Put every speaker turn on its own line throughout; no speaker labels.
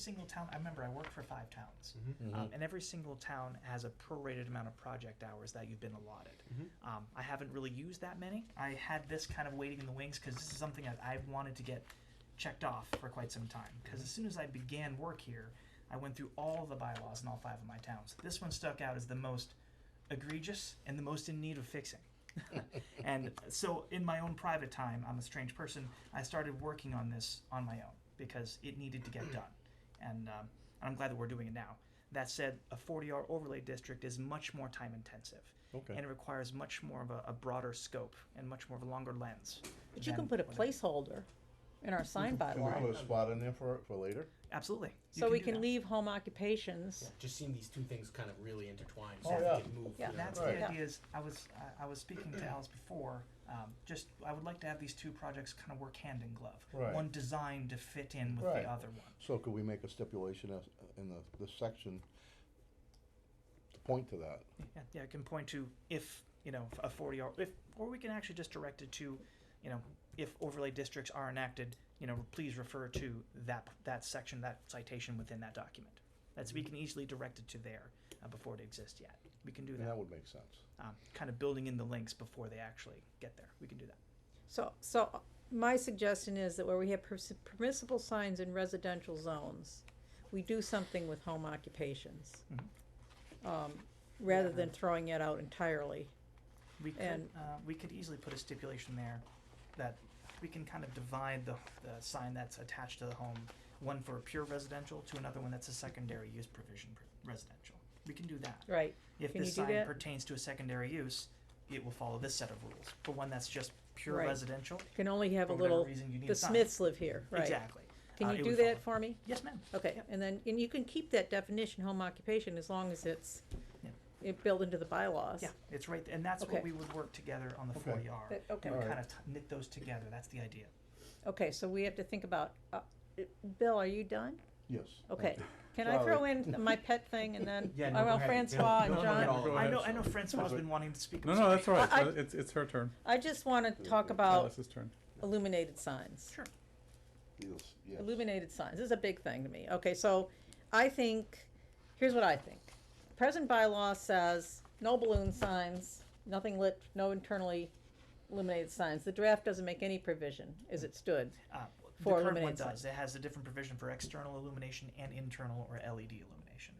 single town, I remember I worked for five towns.
Mhm.
Um, and every single town has a prorated amount of project hours that you've been allotted. Um, I haven't really used that many. I had this kind of waiting in the wings because this is something that I've wanted to get checked off for quite some time. Because as soon as I began work here, I went through all the bylaws in all five of my towns. This one stuck out as the most egregious and the most in need of fixing. and so, in my own private time, I'm a strange person. I started working on this on my own because it needed to get done, and um, I'm glad that we're doing it now. That said, a 40-hour overlay district is much more time-intensive,
Okay.
and it requires much more of a, a broader scope and much more of a longer lens.
But you
than
can put a
what I-
placeholder in our sign
Can we put
bylaw,
a spot in there for, for later?
Absolutely. You
so we
do
can
that.
leave home occupations.
Yeah, just seeing these two things kind of really intertwined, so
Oh,
we
yeah.
can move.
Yeah.
you know,
That's
Right.
the
Yeah.
idea. Is I was I I was speaking to Alice before. Um, just I would like to have these two projects kind of work hand in glove.
Right.
One designed to fit in with
Right.
the other one.
So could we make a stipulation as, in the, this section to point to that?
Yeah, yeah, it can point to if, you know, a forty hour, if, or we can actually just direct it to, you know, if overlay districts are enacted, you know, please refer to that, that section, that citation within that document. That's,
Mm-hmm.
we can easily direct it to there, uh, before it exists yet. We can do
And
that,
that would make sense.
um, kind of building in the links before they actually get there. We can do that.
So, so uh, my suggestion is that where we have permis- permissible signs in residential zones, we do something with home occupations. Um, rather
Mm-hmm. Yeah.
than throwing it out entirely.
We could,
And-
uh, we could easily put a stipulation there that we can kind of divide the, the sign that's attached to the home, one for pure residential to another one that's a secondary use provision pr- residential. We can do that.
Right.
If
Can
this
you do
sign
that?
pertains to a secondary use, it will follow this set of rules. For one that's just pure
Right.
residential,
Can only have a
for whatever
little,
reason, you need
the
a sign.
Smiths live here, right?
Exactly. Uh,
Can
it
you do
would
that
follow.
for me?
Yes, ma'am.
Okay,
Yep.
and then, and you can keep that definition, home occupation, as long as it's,
Yeah.
it built into the bylaws.
Yeah, it's right, th- and that's
Okay.
what we would work together on the
Okay.
forty R.
That- okay.
We would
Alright.
kind of knit those together, that's the idea.
Okay, so we have to think about, uh, Bill, are you done?
Yes.
Okay, can I throw in my pet thing and then,
Yeah, no,
I
go
well,
ahead.
Francois and
Don't- don't look at all
John,
of them.
Go
I
ahead.
know, I know Francois's been wanting to speak. I'm
No, no, that's
sorry.
all right.
I- Oh.
Uh, It's, it's her turn.
I just wanna talk about
Alice's turn.
illuminated signs.
Sure.
Yes, yes.
Illuminated signs, this is a big thing to me, okay, so I think, here's what I think. Present bylaw says, no balloon signs, nothing lit, no internally illuminated signs, the draft doesn't make any provision as it stood.
Uh, The
For
current one
illuminated
does, it has a different provision for external illumination and internal or LED illumination.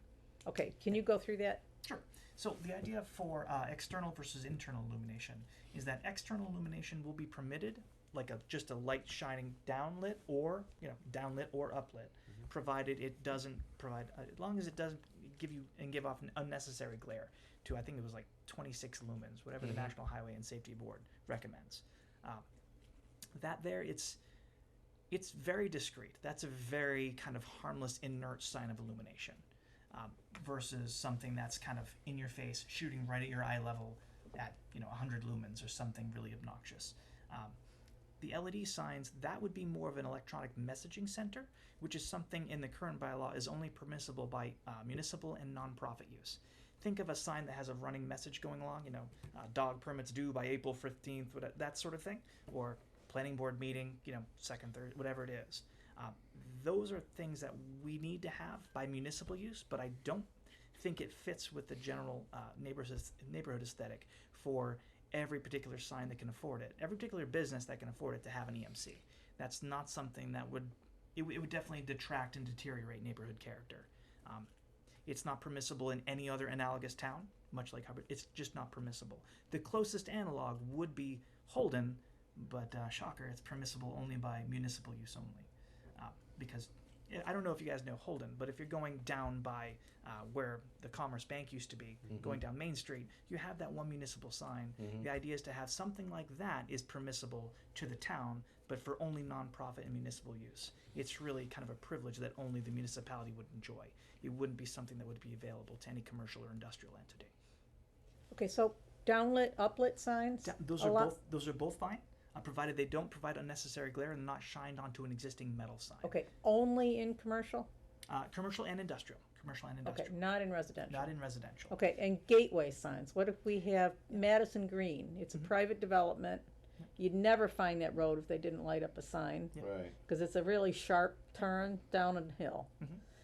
Okay, can you go through that?
Sure. So the idea for uh, external versus internal illumination is that external illumination will be permitted, like a just a light shining downlit or you know downlit or uplit, provided it doesn't provide uh, as long as it doesn't give you and give off an unnecessary glare. To I think it was like 26 lumens, whatever the National Highway and Safety Board recommends. Um, that there, it's it's very discreet. That's a very kind of harmless, inert sign of illumination um, versus something that's kind of in your face, shooting right at your eye level at you know 100 lumens or something really obnoxious. Um, the LED signs that would be more of an electronic messaging center, which is something in the current bylaw is only permissible by uh, municipal and nonprofit use. Think of a sign that has a running message going along, you know, uh, dog permits due by April 15th, what- that sort of thing, or planning board meeting, you know, second, third, whatever it is. Um, those are things that we need to have by municipal use, but I don't think it fits with the general uh, neighborhood neighborhood aesthetic for every particular sign that can afford it, every particular business that can afford it to have an EMC. That's not something that would it, would- it would definitely detract and deteriorate neighborhood character. Um, it's not permissible in any other analogous town, much like Hubbard. It's just not permissible. The closest analog would be Holden, but uh, shocker, it's permissible only by municipal use only. Uh, because yeah, I don't know if you guys know Holden, but if you're going down by uh, where the Commerce Bank used to be, going down Main Street, you have that one municipal sign. The idea is to have something like that is permissible to the town, but for only nonprofit and municipal use. It's really kind of a privilege that only the municipality would enjoy. It wouldn't be something that would be available to any commercial or industrial entity.
Okay, so downlit, uplit signs?
Da- Those
a
are
lot-
both those are both fine, uh, provided they don't provide unnecessary glare and not shined onto an existing metal sign.
Okay, only in commercial?
Uh, commercial and industrial. Commercial and
Okay,
industrial.
not in residential.
Not in residential.
Okay, and gateway signs, what if we have Madison Green? It's a
Mm-hmm.
private development. You'd never find that road if they didn't light up a sign,
Yeah.
Right.
because it's a really sharp turn down a hill.